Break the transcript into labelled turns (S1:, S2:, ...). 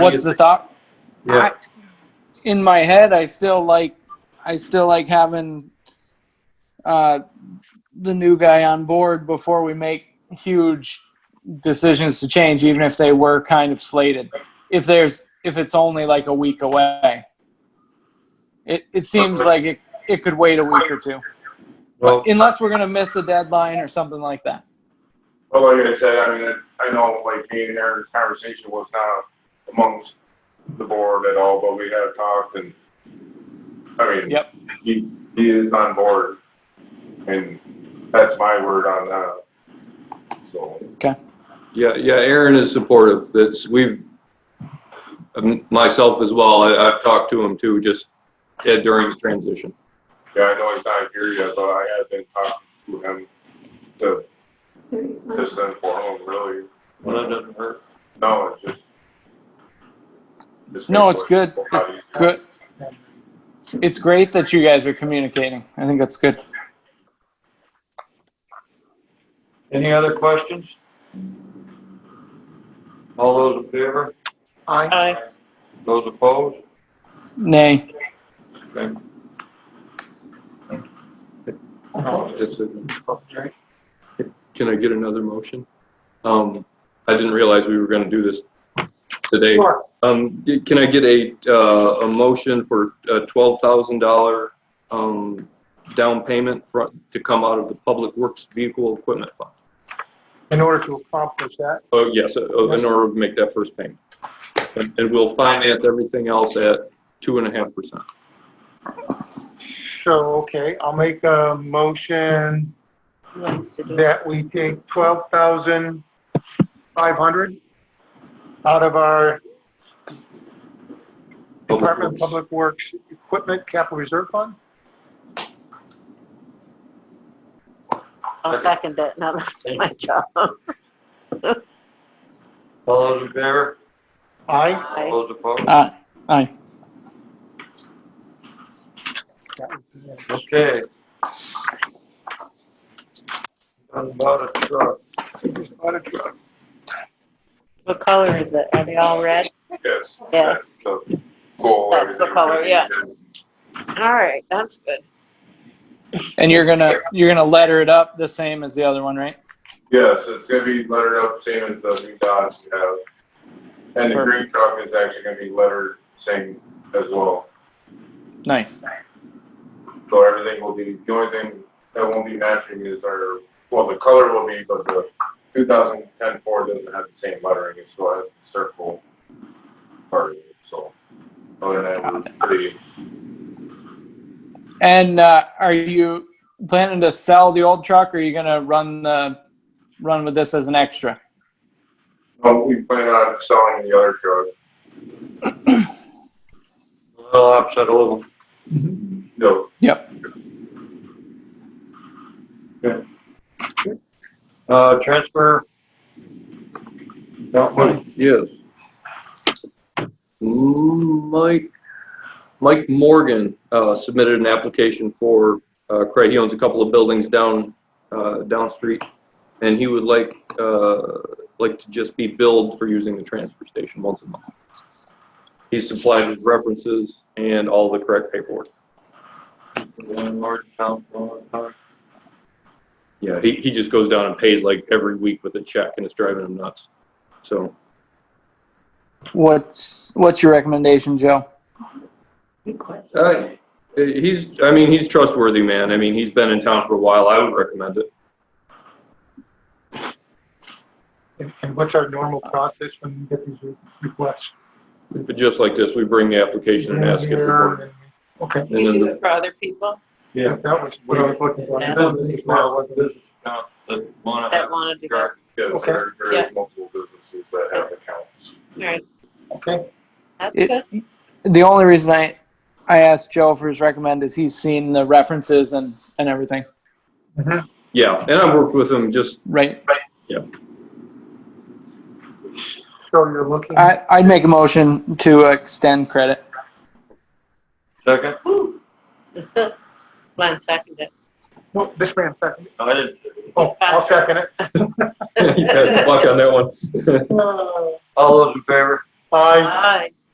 S1: What's the thought?
S2: Yeah.
S1: I, in my head, I still like, I still like having uh, the new guy on board before we make huge decisions to change, even if they were kind of slated. If there's, if it's only like a week away, it it seems like it it could wait a week or two,
S3: Well,
S1: unless we're gonna miss a deadline or something like that.
S3: well, like I said, I mean, it- I know like me and Aaron's conversation was not amongst the board at all, but we had talked and, I mean,
S1: Yep.
S3: he, he is on board. And that's my word on that. So,
S2: Yeah, yeah, Aaron is supportive. That's, we've, um, myself as well, I, I've talked to him too, just yeah, during the transition.
S3: yeah, I know he's not here yet, but I have been talking to him to just inform him really.
S2: Well, that doesn't hurt.
S3: No, it's just. just
S1: No, it's good.
S3: how you-
S1: It's good. It's great that you guys are communicating. I think that's good.
S4: Any other questions? All those in favor?
S5: Aye.
S4: Those opposed?
S1: Nay.
S4: Okay.
S2: That's it. Can I get another motion? Um, I didn't realize we were gonna do this today.
S5: Sure.
S2: Um, d- can I get a, uh, a motion for a twelve thousand dollar, um, down payment fro- to come out of the Public Works Vehicle Equipment Fund?
S5: In order to accomplish that,
S2: Oh, yes, uh, uh, in order to make that first payment. And, and we'll finance everything else at two and a half percent.
S5: so, okay, I'll make a motion that we take twelve thousand five hundred out of our Department of Public Works Equipment Capital Reserve Fund.
S6: I'll second that, no, that's my job.
S4: All those in favor?
S5: Aye.
S4: All
S6: Aye.
S4: those opposed?
S1: Uh, aye.
S4: Okay. Done bought a truck.
S5: Bought a truck.
S6: What color is it? Are they all red?
S3: Yes.
S6: Yes.
S3: That's the goal.
S6: That's the color, yeah. All right, that's good.
S1: And you're gonna you're gonna letter it up the same as the other one, right?
S3: Yes, it's gonna be lettered up same as the new Dodge we have. And the green truck is actually gonna be lettered same as well.
S1: Nice.
S3: So everything will be, the only thing that won't be matching is our, well, the color will be, but the 2010 Ford doesn't have the same lettering, it still has the circle part of it, so. Other than that, we're pretty,
S1: And uh, are you planning to sell the old truck, or are you gonna run the run with this as an extra?
S3: no, oh, we plan on selling the other truck.
S4: A little upset a little.
S3: No,
S4: Uh, transfer. Don't move.
S2: Yes. Mike, Mike Morgan uh, submitted an application for, uh, Craig, he owns a couple of buildings down, uh, down street, and he would like, uh, like to just be billed for using the transfer station once a month. He supplied his references and all the correct paperwork.
S4: Landlord, town, landlord.
S2: Yeah, he, he just goes down and pays like every week with a check, and it's driving him nuts. So,
S1: What's what's your recommendation, Joe?
S2: uh, he's, I mean, he's trustworthy, man. I mean, he's been in town for a while. I would recommend it.
S5: And- And what's our normal process when we get these requests?
S2: But just like this, we bring the application and ask it. for-
S5: Okay,
S2: And then the-
S6: for other people
S4: Yeah.
S5: that was what I was looking for.
S4: This is now, this is now, the one I have.
S6: wanna
S4: Correct.
S3: yes,
S5: Okay.
S3: there there
S6: Yeah.
S3: is multiple businesses that have accounts.
S6: All right,
S5: Okay,
S6: that's
S1: It, the only reason I I asked Joe for his recommend is he's seen the references and and everything,
S5: Mm-hmm.
S2: Yeah, and I've worked with him just,
S1: right?
S5: so you're looking.
S1: I I'd make a motion to extend credit.
S4: Second?
S6: good. Glenn seconded.
S5: No, Oh, this man second.
S4: I didn't.
S5: Oh, I'll second it.
S2: you guys luck on that one.
S5: Uh,
S4: All those in favor?
S5: Aye.
S6: Aye.